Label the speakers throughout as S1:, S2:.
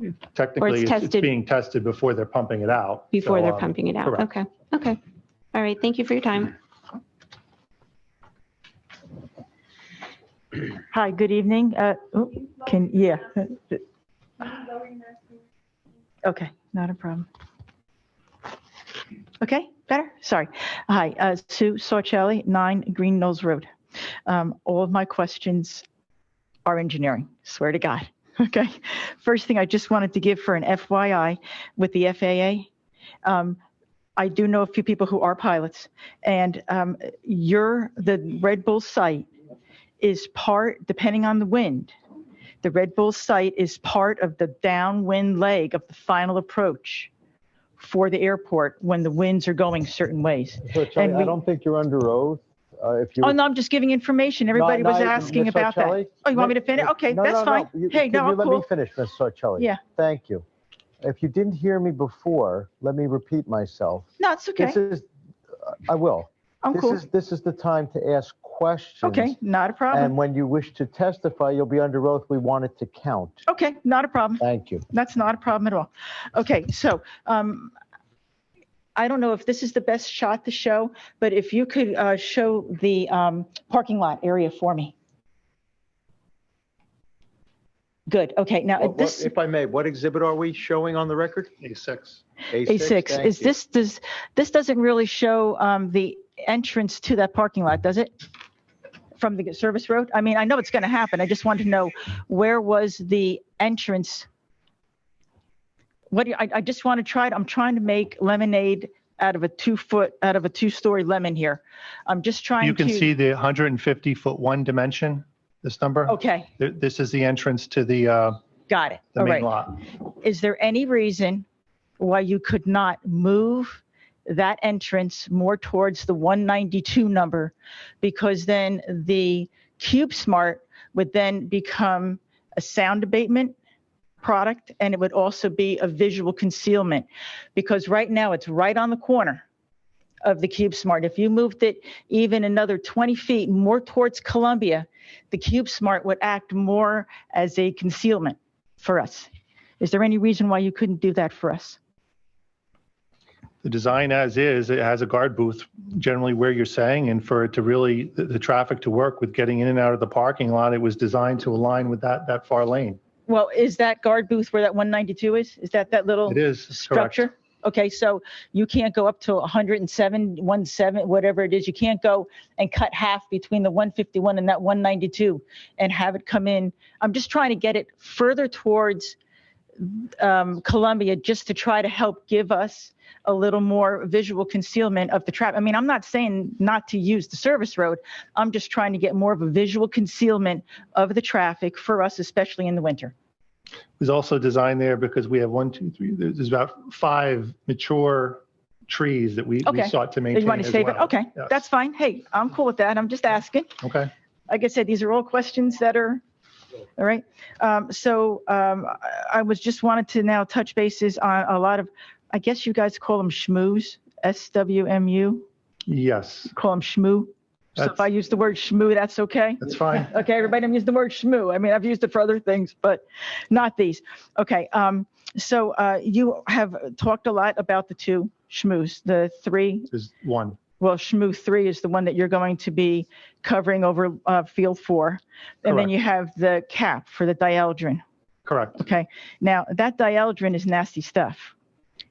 S1: Or
S2: Technically,
S1: it's
S2: it's it's
S1: tested-
S2: being tested before they're pumping it out.
S1: before
S2: So,
S1: they're
S2: um,
S1: pumping it out.
S2: correct.
S1: Okay, okay. All right, thank you for your time.
S3: Hi, good evening. Uh, oh, Can, yeah. Okay, not a problem. Okay, better? Sorry. Hi, uh, Sue Sorcelli, 9 Green Knolls Road. Um, All of my questions are engineering, swear to God. Okay. First thing I just wanted to give for an FYI with the FAA. um, I do know a few people who are pilots, and um, your, the Red Bull site is part, depending on the wind, the Red Bull site is part of the downwind leg of the final approach for the airport when the winds are going certain ways.
S4: So Charlie,
S3: And
S4: I
S3: we-
S4: don't think you're under oath. Uh, If you.
S3: Oh, no, I'm just giving information. Everybody
S4: No,
S3: was
S4: no,
S3: asking
S4: Ms.
S3: about that.
S4: Sarcelli?
S3: Oh, you want me to finish? Okay,
S4: No,
S3: that's
S4: no, no.
S3: fine.
S4: You-
S3: Hey,
S4: can
S3: no,
S4: you
S3: I'm
S4: Let me
S3: cool.
S4: finish, Ms. Sarcelli.
S3: Yeah.
S4: Thank you. If you didn't hear me before, let me repeat myself.
S3: No, it's okay.
S4: This is, uh, I will.
S3: I'm
S4: This
S3: cool.
S4: is, this is the time to ask questions.
S3: Okay, not a
S4: And
S3: problem.
S4: when you wish to testify, you'll be under oath. We want it to count.
S3: Okay, not a problem.
S4: Thank you.
S3: That's not a problem at all. Okay, so um, I don't know if this is the best shot to show, but if you could uh, show the um, parking lot area for me. Good, okay, now
S5: What- what-
S3: this,
S5: If I may, what exhibit are we showing on the record?
S2: A6.
S3: A6,
S5: thank
S3: is
S5: you.
S3: this, does, this doesn't really show um, the entrance to that parking lot, does it? From the service road? I mean, I know it's going to happen, I just want to know, where was the entrance? What, do you- I, I just want to try, to- I'm trying to make lemonade out of a two-foot, out of a two-story lemon here. I'm just trying to.
S2: You can see the 150 foot one dimension, this number.
S3: Okay,
S2: Th- This is the entrance to the, uh,
S3: got it,
S2: the
S3: all
S2: main
S3: right.
S2: lot.
S3: is there any reason why you could not move that entrance more towards the 192 number? Because then the Cube Smart would then become a sound abatement product and it would also be a visual concealment because right now it's right on the corner of the Cube Smart. If you moved it even another 20 feet more towards Columbia, the Cube Smart would act more as a concealment for us. Is there any reason why you couldn't do that for us?
S2: The design as is, it has a guard booth generally where you're saying, and for it to really, the, the traffic to work with getting in and out of the parking lot, it was designed to align with that, that far lane.
S3: Well, is that guard booth where that 192 is? Is that that little
S2: It is. correct.
S3: structure? Okay, so you can't go up to 107, 17, whatever it is. You can't go and cut half between the 151 and that 192 and have it come in. I'm just trying to get it further towards um, Columbia just to try to help give us a little more visual concealment of the traffic. I mean, I'm not saying not to use the service road. I'm just trying to get more of a visual concealment of the traffic for us, especially in the winter.
S2: was also designed there because we have one, two, three, there's there's about five mature trees that we, we
S3: Okay.
S2: sought to
S3: You
S2: maintain
S3: want to
S2: as
S3: save it?
S2: well.
S3: Okay,
S2: Yes.
S3: that's fine. Hey, I'm cool with that. I'm just asking.
S2: Okay.
S3: Like I said, these are all questions that are, all right. Um, So um, I- I was just wanted to now touch bases on a lot of, I guess you guys call them schmooze, S-W-M-U,
S2: Yes,
S3: call them schmoo. So if
S2: That's-
S3: I use the word schmoo, that's okay?
S2: that's fine.
S3: Okay, everybody, I'm using the word schmoo. I mean, I've used it for other things, but not these. Okay, um, so uh, you have talked a lot about the two schmooze, the three
S2: There's one.
S3: well, Shmoo 3 is the one that you're going to be covering over uh, Field 4. And then
S2: Correct.
S3: you have the cap for the dieldrin.
S2: Correct.
S3: Okay. Now, that dieldrin is nasty stuff.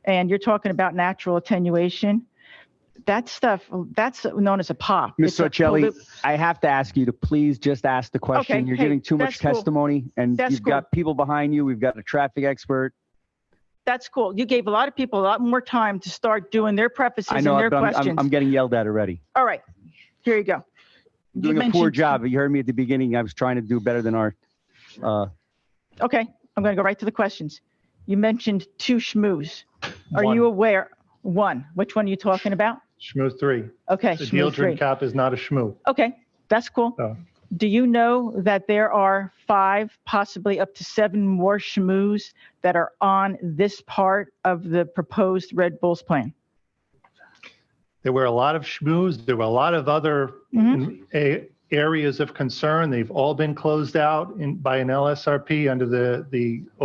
S3: And you're talking about natural attenuation. That stuff, that's known as a pop. It's
S6: Ms.
S3: a
S6: Sarcelli,
S3: pollu-
S6: I have to ask you to please just ask the question. You're
S3: hey,
S6: giving too
S3: that's
S6: much
S3: cool.
S6: testimony and
S3: That's
S6: you've got people behind you. We've got a traffic expert.
S3: That's cool. You gave a lot of people a lot more time to start doing their prefaces
S6: I
S3: and
S6: know,
S3: their
S6: but I'm-
S3: questions.
S6: I'm, I'm getting yelled at already.
S3: All right. Here you go. You
S6: Doing a poor
S3: mentioned-
S6: job. You heard me at the beginning. I was trying to do better than our, uh,
S3: Okay. I'm going to go right to the questions. You mentioned two schmooze. Are
S2: One.
S3: you aware? One. Which one are you talking about?
S2: Schmoo three.
S3: Okay,
S2: The Oh.
S3: Shmoo
S2: Dieldrin
S3: three.
S2: cap is not a schmoo.
S3: Okay, that's cool.
S2: So
S3: Do you know that there are five, possibly up to seven more schmooze that are on this part of the proposed Red Bulls plan?
S2: there were a lot of schmooze. There were a lot of other
S3: Mm-hmm.
S2: in- a- areas of concern. They've all been closed out in, by an LSRP under the, the